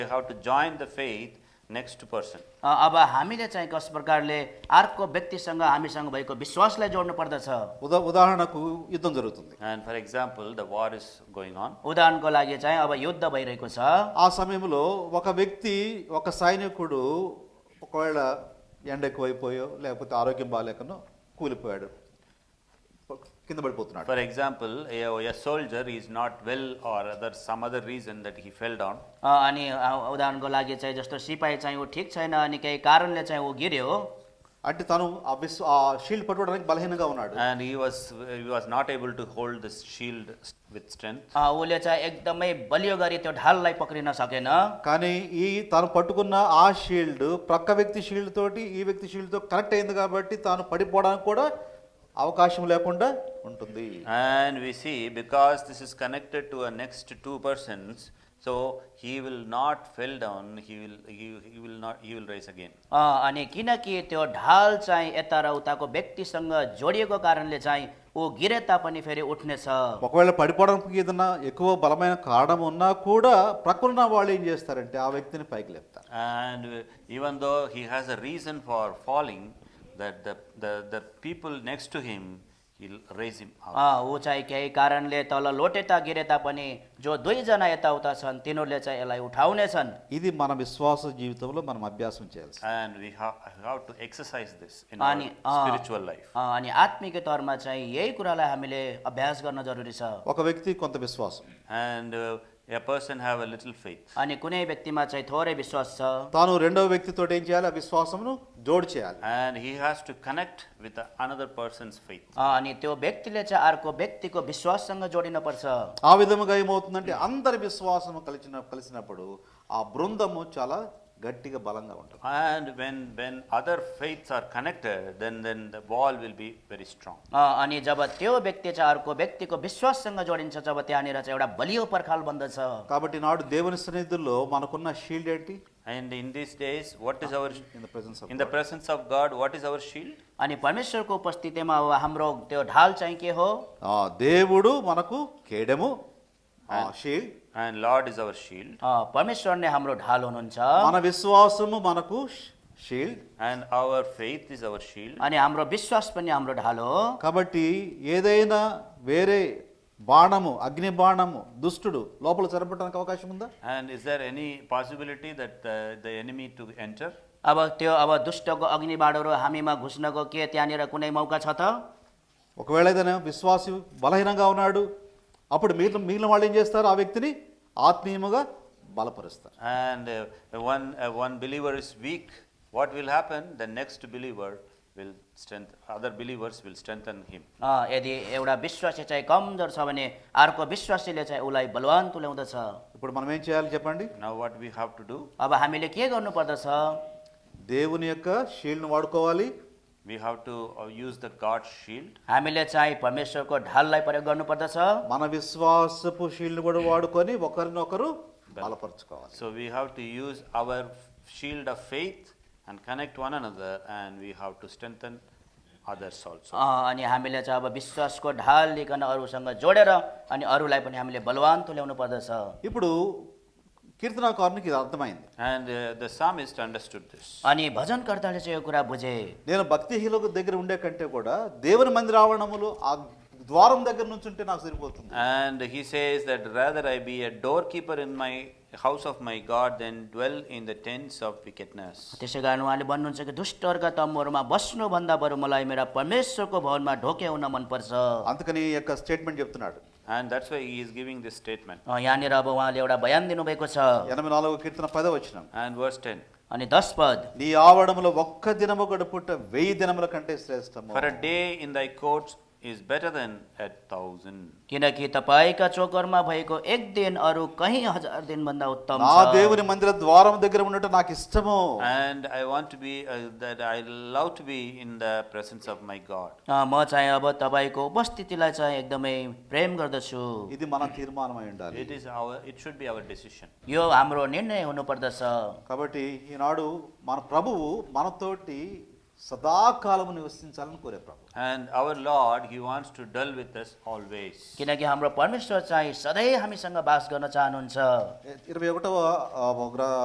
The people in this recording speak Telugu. how to join the faith next person. अ, अब हामीले चाहिँ कस प्रकारले अर्को व्यक्तिसँग हामीसँग भएको विश्वासलाई जोड्नु पर्दछ ఉదా ఉదాహరణకు యుద్ధం జరుగుతుంది And for example, the war is going on. उदाहरणको लागि चाहिँ अब युद्ध भइरहेको छ ఆ సమయంలో ఒక వ్యక్తి ఒక సైనికుడు ఒకవేళ ఎండ ఎక్కువైపోయో లేకపోతే ఆరోగ్యం బాగాలేకనో కూలిపోయాడు కింద పడిపోతున్నాడు For example, a, a soldier is not well or other some other reason that he fell down. अ, अनि अ, उदाहरणको लागि चाहिँ जस्तो सिपाही चाहिँ ऊ ठिक छैन अनि केही कारणले चाहिँ ऊ गिर्यो అంటే తను ఆ విస్ ఆ షీల్డ్ పట్టుకోవడానికి బలహీనంగా ఉన్నాడు And he was he was not able to hold this shield with strength. अ, उसले चाहिँ एकदमै बलियो गरी त्यो ढाललाई पक्रिन सकेन కానీ ఈ తను పట్టుకున్న ఆ షీల్డ్ ప్రక్క వ్యక్తి షీల్డ్ తోటి ఈ వ్యక్తి షీల్డ్ తో కనెక్ట్ అయింది కాబట్టి తాను పడిపోవడానికి కూడా అవకాశం లేకుండా ఉంటుంది And we see because this is connected to a next two persons, so he will not fell down. He will he, he will not he will rise again. अ, अनि किनकि त्यो ढाल चाहिँ यता र उताको व्यक्तिसँग जोडिएको कारणले चाहिँ ऊ गिरे तापनि फेरि उठ्नेछ ఒకవేళ పడిపోవడానికి ఏదైనా ఎక్కువ బలమైన కారణం ఉన్నా కూడా ప్రక్కన వాళ్ళు ఏం చేస్తారంటే ఆ వ్యక్తిని పైకి లేపుతారు And uh, even though he has a reason for falling, that the, the, the people next to him, he'll raise him up. अ, ऊ चाहिँ केही कारणले तल लोटे गिरे तापनि जो दुईजना यताउता छन् तिनीहरूले चाहिँ यसलाई उठाउने छन् ఇది మన విశ్వాస జీవితంలో మనం అభ్యాసం చేయాల్సి And we have, have to exercise this in our अनि अ, spiritual life. अ, अनि आत्मिक तौरमा चाहिँ यही कुरालाई हामीले अभ्यास गर्न जरुरी छ ఒక వ్యక్తి కొంత విశ్వాసం And uh, a person have a little faith. अनि కునే వ్యక్తిमा चाहिँ थोरै విశ్వాस छ తాను రెండవ వ్యక్తితో ఏం చేయాలి ఆ విశ్వాసమును జోడు చేయాలి And he has to connect with the another person's faith. अ, अनि त्यो व्यक्तिले चाहिँ अर्को व्यक्तिको विश्वाससँग जोडिनुपर्छ ఆ విధముగా ఏమవుతుందంటే అందరి విశ్వాసము కలిసిన కలిసినప్పుడు ఆ బృందము చాలా గట్టిగా బలంగా ఉంటుంది And when, when other faiths are connected, then, then the wall will be very strong. अ, अनि जब त्यो व्यक्ति चाहिँ अर्को व्यक्तिको विश्वाससँग जोडिन्छ जब त्यहाँनिर चाहिँ एउटा बलियो पर्खाल बन्दछ కాబట్టి నాడు దేవుని సన్నిధుల్లో మనకున్న షీల్డ్ ఏంటి And in these days, what is our, in the presence in the presence of God, what is our shield? अनि परमेश्वरको उपस्थितिमा अब हाम्रो त्यो ढाल चाहिँ के हो ఆ దేవుడు మనకు కేడము ఆ shield And Lord is our shield. अ, परमेश्वर नै हाम्रो ढाल हुनुहुन्छ మన విశ్వాసము మనకు shield And our faith is our shield. अनि हाम्रो विश्वास पनि हाम्रो ढाल हो కాబట్టి ఏదైనా వేరే బాణము అగ్ని బాణము దుష్టుడు లోపల చొరబడడానికి అవకాశం ఉందా And is there any possibility that uh, the, the enemy to enter? अब त्यो अब दुष्टको अग्निबाडहरू हामीमा घुस्नको के त्यहाँनिर कुनै मौका छ त ఒకవేళ ఏదైనా విశ్వాసి బలహీనంగా ఉన్నాడు అప్పుడు మిగిలిన మిగిలిన వాళ్ళు ఏం చేస్తారు ఆ వ్యక్తిని ఆత్మీయముగా బలపరుస్తారు And uh, one, uh, one believer is weak, what will happen? The next believer will strengthen, other believers will strengthen him. अ, यदि एउटा विश्वासी चाहिँ कमजोर छ भने अर्को विश्वासीले चाहिँ उसलाई बलवान तुल्याउँदछ ఇప్పుడు మనం ఏం చేయాలి చెప్పండి Now what we have to do? अब हामीले के गर्नुपर्दछ దేవుని యొక్క షీల్డ్ను వాడుకోవాలి We have to uh, use the God shield हामीले चाहिँ परमेश्वरको ढाललाई प्रयोग गर्नुपर्दछ మన విశ్వాసపు షీల్డ్ను కూడా వాడుకొని ఒకరినొకరు బలపరచుకోవాలి So we have to use our shield of faith and connect one another, and we have to strengthen others also. अ, अनि हामीले चाहिँ अब विश्वासको ढाल लिकन अरूसँग जोडेर अनि अरूलाई पनि हामीले बलवान तुल्याउनु पर्दछ ఇప్పుడు కీర్తనాకారునికి ఇది అర్థమైంది And uh, the psalmist understood this. अनि भजनकर्ताले चाहिँ यो कुरा बुझे నేను భక్తిహీనులకు దగ్గర ఉండే కంటే కూడా దేవుని మందిర ఆవరణములు ఆ ద్వారం దగ్గర నుంచి ఉంటే నాకు సరిపోతుంది And he says that rather I be a doorkeeper in my house of my God than dwell in the tents of wickedness. त्यसै कारण उहाँले भन्नुहुन्छ कि दुष्टहरूका तम्बुहरूमा बस्नुभन्दा बरु मलाई मेरा परमेश्वरको भवनमा ढोक्याउन मनपर्छ अ, అందుకని ఈ యొక్క స్టేట్మెంట్ చెప్తున్నాడు And that's why he is giving this statement. यहाँनिर अब उहाँले एउटा बयान दिनुभएको छ ఎనభై నాలుగో కీర్తన పదవ వచ్చిన And verse 10 अनि दस पद నీ ఆవడములో ఒక్క దినము గడుపుట వెయ్యి దినముల కంటే శ్రేష్టము For a day in thy courts is better than a thousand. किनकि तपाईँका चोकरमा भएको एक दिन अरू कहीँ हजार दिनभन्दा उत्तम నా छ। దేవుని మందిర ద్వారం దగ్గర ఉండట నాకు ఇష్టము And I want to be, uh, that I love to be in the presence of my God. अ, म चाहिँ अब तपाईँको उपस्थितिलाई चाहिँ एकदमै प्रेम गर्दछु ఇది మన తీర్మానం అయి ఉండాలి It is our, it should be our decision. यो हाम्रो निर्णय हुनुपर्दछ కాబట్టి ఈనాడు మన ప్రభువు మనతోటి సదాకాలము నివసించాలని కోరే ప్రభు And our Lord, He wants to dwell with us always. किनकि हाम्रो परमेश्वर चाहिँ सधैँ हामीसँग बास गर्न चाहनुहुन्छ ఇరవై ఒకటవ ఆ, గ్ర-